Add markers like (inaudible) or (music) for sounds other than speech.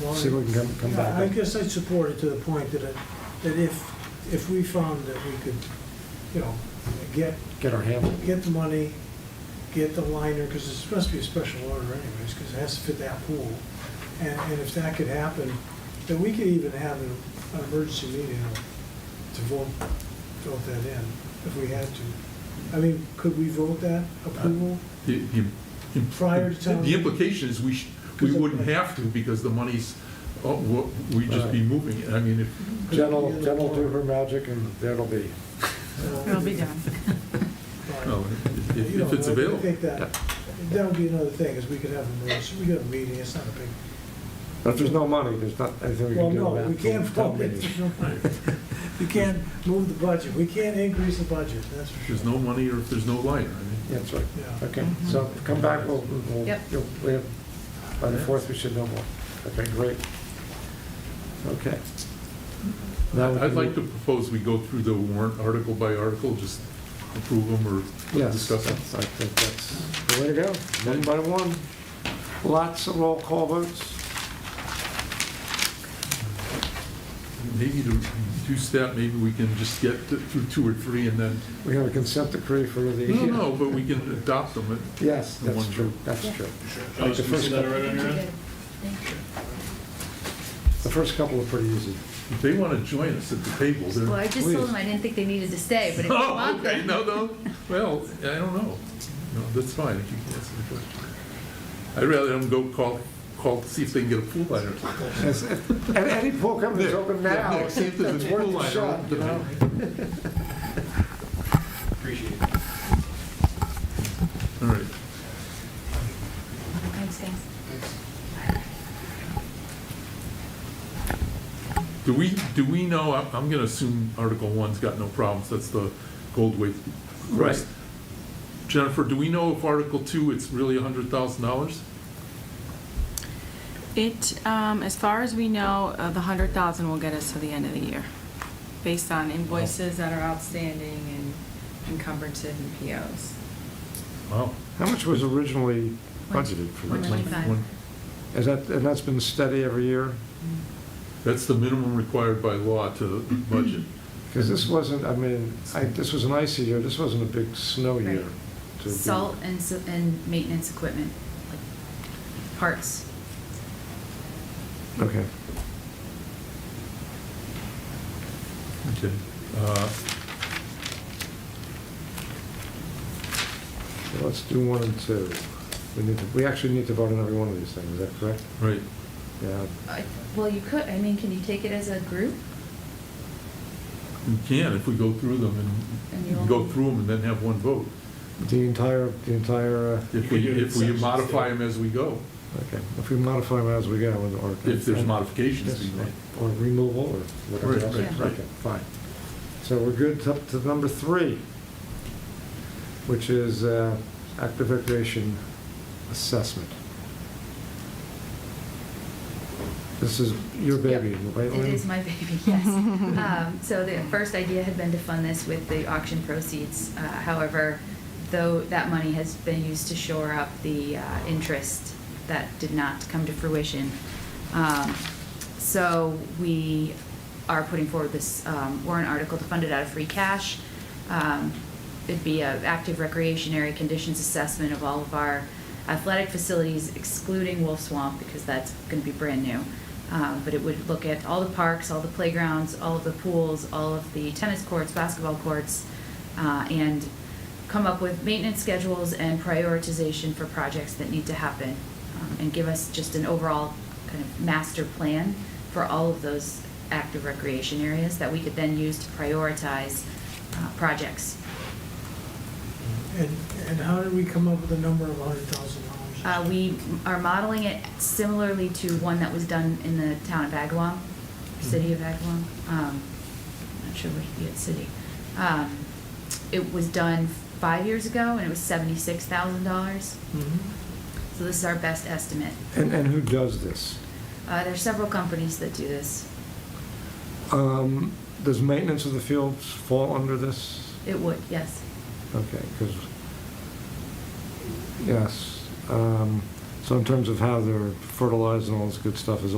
Well, see if we can come, come yeah, I back. guess I'd support it to the point that, it- that if, if we found that we could, you know, get, Get our handle. get the money, get the liner, because it's supposed to be a special order anyways, because it has to fit that pool. And, and if that could happen, then we could even have an, an emergency meeting to vote, vote that in, if we had to. I mean, could we vote that Uh, approval? The- the- im- Prior to town The implication is we, sh- we wouldn't have to because the money's, oh, wo- we'd just be moving it. I mean, (laughs) if, Jen will, Jen will do her magic and there'll be, So- It'll be done. Right. no, if- You know, if it's I available. think that- That would be another thing, is we could have a, meeting- we could have a meeting, it's not a big, but if there's no money, there's not anything we well, can do no, about it. we can't vote. (laughs) You can't move the budget, we can't increase the budget, that's for sure. If there's no money or if there's no light, I mean. That's right. Yeah. Okay, so come back, we'll, we'll, Yep. you'll- we have, by the fourth, we should know more. Okay, great. Okay. Now we I'd can- like to propose we go through the warrant article by article, just approve them or Yes, discuss them. that's- I think that's the way to go, one by one. Lots of roll call votes. Maybe to reduce that, maybe we can just get to- through two or three and then, We have a consent decree for the. no, no, but we can adopt them. It- Yes, The that's one- true, that's true. Josh, the can you first see that already on your end? The first couple are pretty (laughs) easy. If they want to join us at the table, they're. Well, I just told them I didn't think they needed to stay, but if (laughs) you Oh, want okay, them. no, no, well, I don't know. No, that's fine, if you can answer the question. I'd rather them go call, call, see if they can get a pool liner. Yes, And any pool company's open Yeah, now, Nick, (laughs) See if there's it's a pool worth a liner. shot, you open know? tonight. Appreciate it. All right, Thanks, guys. do we, do we know, I'm, I'm gonna assume Article One's got no problems, that's the gold weight. Right. Jennifer, do we know if Article Two, it's really a hundred thousand dollars? It, um, as far as we know, uh, the hundred thousand will get us to the end of the year, based on invoices that are outstanding and encumbrances and POs. Wow. How much was originally budgeted for One this? One- twenty-five. one- Is that, and that's been steady every year? That's the minimum required by law to Mm-hmm. budget. Because this wasn't, I mean, I, this was an icy year, this wasn't a big snow Right. year. to be- Salt and, s- and maintenance equipment, like parts. Okay. Okay. Uh, So Let's do one and two. We need to, we actually need to vote on every one of these things, is that correct? Right, Yeah. I- Well, you could, I mean, can you take it as a group? we can if we go through them And you and go all- through them and then have one vote. The entire, the entire, uh, If we, You could do if we exceptions, modify yeah. them as we go, okay, if we modify them as we go, or. if there's modifications to be Yes, made. Or removal, or whatever Right, else. right, right. Okay, Fine. So we're good up to number three, which is uh, active recreation assessment. This is your baby, Yep. right, Lynn? It is my baby, (laughs) yes. Um, So the first idea had been to fund this with the auction proceeds. Uh, However, though that money has been used to shore up the uh, interest that did not come to fruition. Um, So we are putting forward this um, warrant article to fund it out of free cash. Um, It'd be an active recreation area conditions assessment of all of our athletic facilities excluding Wolf Swamp because that's going to be brand new. Um, But it would look at all the parks, all the playgrounds, all of the pools, all of the tennis courts, basketball courts, uh, and come up with maintenance schedules and prioritization for projects that need to happen, um, and give us just an overall kind of master plan for all of those active recreation areas that we could then use to prioritize uh, projects. And, and how did we come up with a number of hundred thousand dollars? Uh, We are modeling it similarly to one that was done in the town of Agawam, city of Agawam. Um, Not sure what the city. Um, It was done five years ago, and it was seventy-six thousand dollars. Mhm. So this is our best estimate. And, and who does this? Uh, There are several companies that do this. Um, Does maintenance of the fields fall under this? It would, yes. Okay, because, yes, um, so in terms of how they're fertilized and all this good stuff is